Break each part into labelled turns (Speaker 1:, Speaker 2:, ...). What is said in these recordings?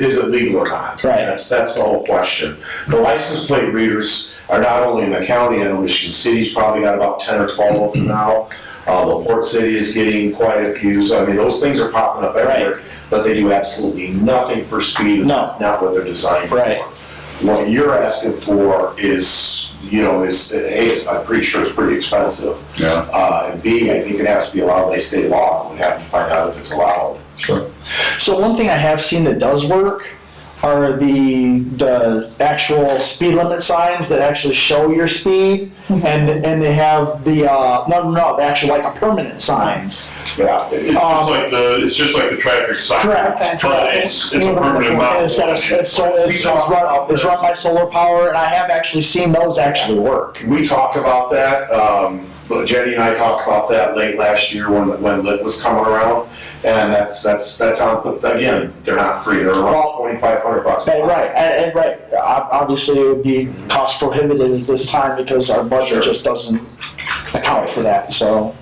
Speaker 1: is it legal or not?
Speaker 2: Right.
Speaker 1: That's, that's the whole question. The license plate readers are not only in the county, I know Michigan City's probably got about ten or twelve of them now. Uh, La Porte City is getting quite a few, so I mean, those things are popping up everywhere, but they do absolutely nothing for speed, and
Speaker 2: No.
Speaker 1: that's not what they're designed for.
Speaker 2: Right.
Speaker 1: What you're asking for is, you know, is, A, it's- I'm pretty sure it's pretty expensive.
Speaker 3: Yeah,
Speaker 1: Uh, and B, I think it has to be allowed by state law, we have to find out if it's allowed.
Speaker 3: sure.
Speaker 2: So one thing I have seen that does work are the the actual speed limit signs that actually show your speed,
Speaker 4: Mm-hmm.
Speaker 2: and and they have the uh, no no no they actually like a permanent sign.
Speaker 1: Yeah.
Speaker 5: It's
Speaker 2: Um,
Speaker 5: just like the, it's just like the traffic sign.
Speaker 2: Correct.
Speaker 5: But it's, it's a permanent
Speaker 2: And
Speaker 5: model.
Speaker 2: it's got a, it's, so it's, it's run it's run by solar power, and I have actually seen those actually work.
Speaker 1: We talked about that, um, but Jenny and I talked about that late last year when, when lit was coming around. And that's, that's, that's on, but again, they're not free, they're around twenty-five hundred bucks.
Speaker 2: But right, and, and right, ob- obviously it would be cost prohibitive this time because our budget
Speaker 1: Sure.
Speaker 2: just doesn't account for that. So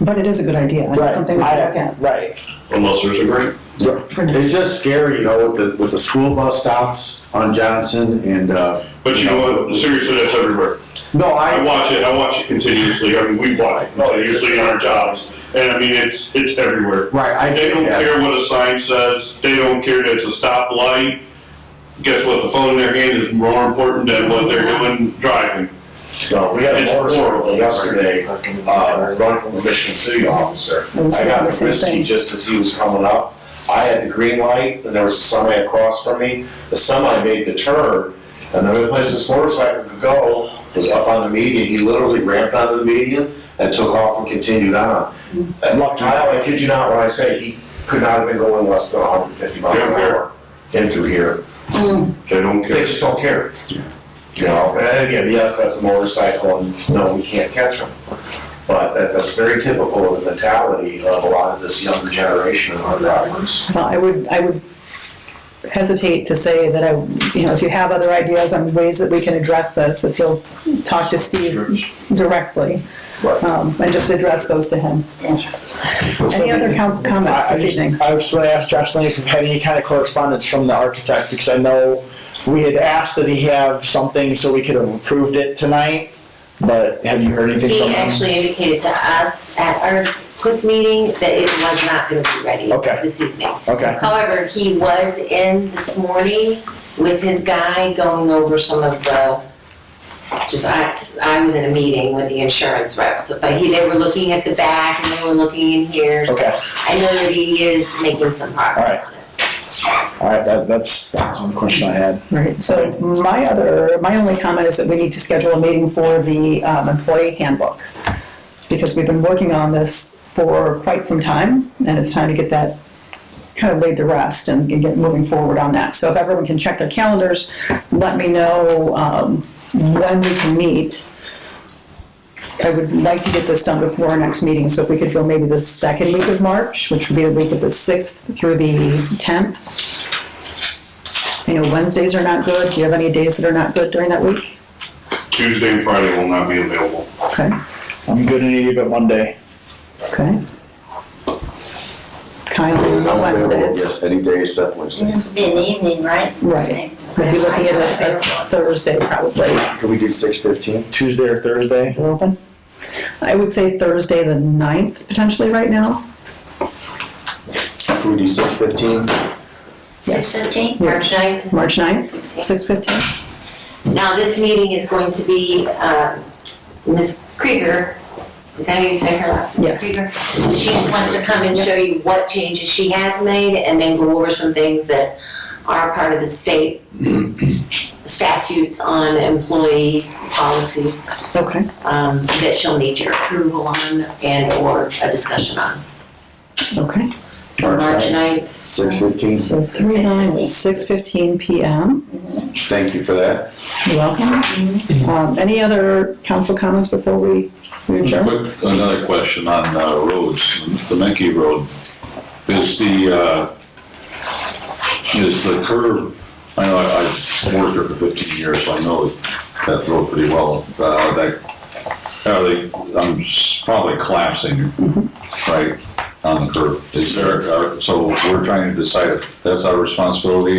Speaker 4: But it is a good idea, and
Speaker 2: right,
Speaker 4: it's something we
Speaker 2: I-
Speaker 4: can look at.
Speaker 2: right.
Speaker 5: Unless there's a grant.
Speaker 6: It's just scary, you know, with the, with the school bus stops on Johnson and, uh.
Speaker 5: But you know what, seriously, that's everywhere.
Speaker 6: No,
Speaker 5: I
Speaker 6: I,
Speaker 5: watch it, I watch it continuously, I mean, we watch it continuously in our jobs, and I mean, it's, it's everywhere.
Speaker 6: right, I
Speaker 5: They
Speaker 6: get
Speaker 5: don't
Speaker 6: that.
Speaker 5: care what a sign says, they don't care that it's a stoplight. Guess what, the phone in their hand is more important than what they're doing driving.
Speaker 1: No, Uh, we had a
Speaker 5: It's
Speaker 1: motorcycle
Speaker 5: horrible.
Speaker 1: yesterday, uh, run from a Michigan City officer.
Speaker 4: It was
Speaker 1: I got
Speaker 4: the same
Speaker 1: Comiskey
Speaker 4: thing.
Speaker 1: just as he was coming up. I had the green light, and there was a semi across from me. The semi made the turn, and the only place this motorcycle could go was up on the median. He literally ramped onto the median and took off and continued on. And look, Kyle, I kid you not when I say he could not have been going less than 150 miles an hour in through here.
Speaker 5: They don't
Speaker 1: They
Speaker 5: care.
Speaker 1: just don't care. You know, and again, yes, that's a motorcycle, and no, we can't catch them. But that, that's very typical of the mentality of a lot of this younger generation of our drivers.
Speaker 4: Well, I would, I would hesitate to say that I, you know, if you have other ideas on ways that we can address this, if you'll talk to Steve directly,
Speaker 1: Right.
Speaker 4: um, and just address those to him. Any other council comments
Speaker 2: I I
Speaker 4: this
Speaker 2: just,
Speaker 4: evening?
Speaker 2: I was going to ask Josh Lane if he had any kind of correspondence from the architect, because I know we had asked that he have something so we could have approved it tonight, but have you heard anything
Speaker 7: He
Speaker 2: from him?
Speaker 7: actually indicated to us at our quick meeting that it was not gonna be ready
Speaker 2: Okay.
Speaker 7: this evening.
Speaker 2: Okay,
Speaker 7: However, he was in this morning with his guy going over some of the, just, I, I was in a meeting with the insurance reps, but he, they were looking at the back and they were looking in here. so
Speaker 2: okay,
Speaker 7: I know that he is making some progress on it.
Speaker 2: all right, that, that's, that's one question I had.
Speaker 4: Right, so my other, my only comment is that we need to schedule a meeting for the um, employee handbook. Because we've been working on this for quite some time, and it's time to get that kind of laid to rest and and get moving forward on that. So if everyone can check their calendars, let me know um, when we can meet. I would like to get this done before our next meeting, so if we could go maybe the second week of March, which would be the week of the 6th through the 10th. I know Wednesdays are not good. Do you have any days that are not good during that week?
Speaker 5: Tuesday and Friday will not be available.
Speaker 4: Okay,
Speaker 2: I'm good in any but one day.
Speaker 4: okay. Kyle,
Speaker 6: I'm
Speaker 4: on
Speaker 6: available,
Speaker 4: Wednesdays.
Speaker 6: yes, Any day except Wednesday.
Speaker 8: This will be an evening, right?
Speaker 4: Right. Maybe looking at a- a Thursday probably.
Speaker 6: Can we do six fifteen?
Speaker 2: Tuesday or Thursday?
Speaker 4: We're open. I would say Thursday the 9th potentially right now.
Speaker 6: Can we do six fifteen?
Speaker 8: Six fifteen?
Speaker 7: March 9th?
Speaker 4: March 9th, 6:15.
Speaker 7: Now, this meeting is going to be, um, Ms. Krieger, is that how you say her last name?
Speaker 4: Yes.
Speaker 7: Krieger? She just wants to come and show you what changes she has made and then go over some things that are part of the state statutes on employee policies
Speaker 4: Okay,
Speaker 7: um, that she'll need your approval on and/or a discussion on.
Speaker 4: okay.
Speaker 7: So
Speaker 6: March
Speaker 7: March 9th,
Speaker 6: Six fifteen?
Speaker 4: So 3, 9, 6:15 PM.
Speaker 6: Thank you for that. Mm-hmm.
Speaker 4: You're welcome. Um, Any other council comments before we we adjourn?
Speaker 3: Quick, another question on uh, roads, the Menke Road. Is the, uh, is the curve, I know I- I've worked there for 15 years, so I know that road pretty well. Uh, That, are they, I'm s- probably collapsing, uh, right, on the curve. Is there, are- so we're trying to decide if that's our responsibility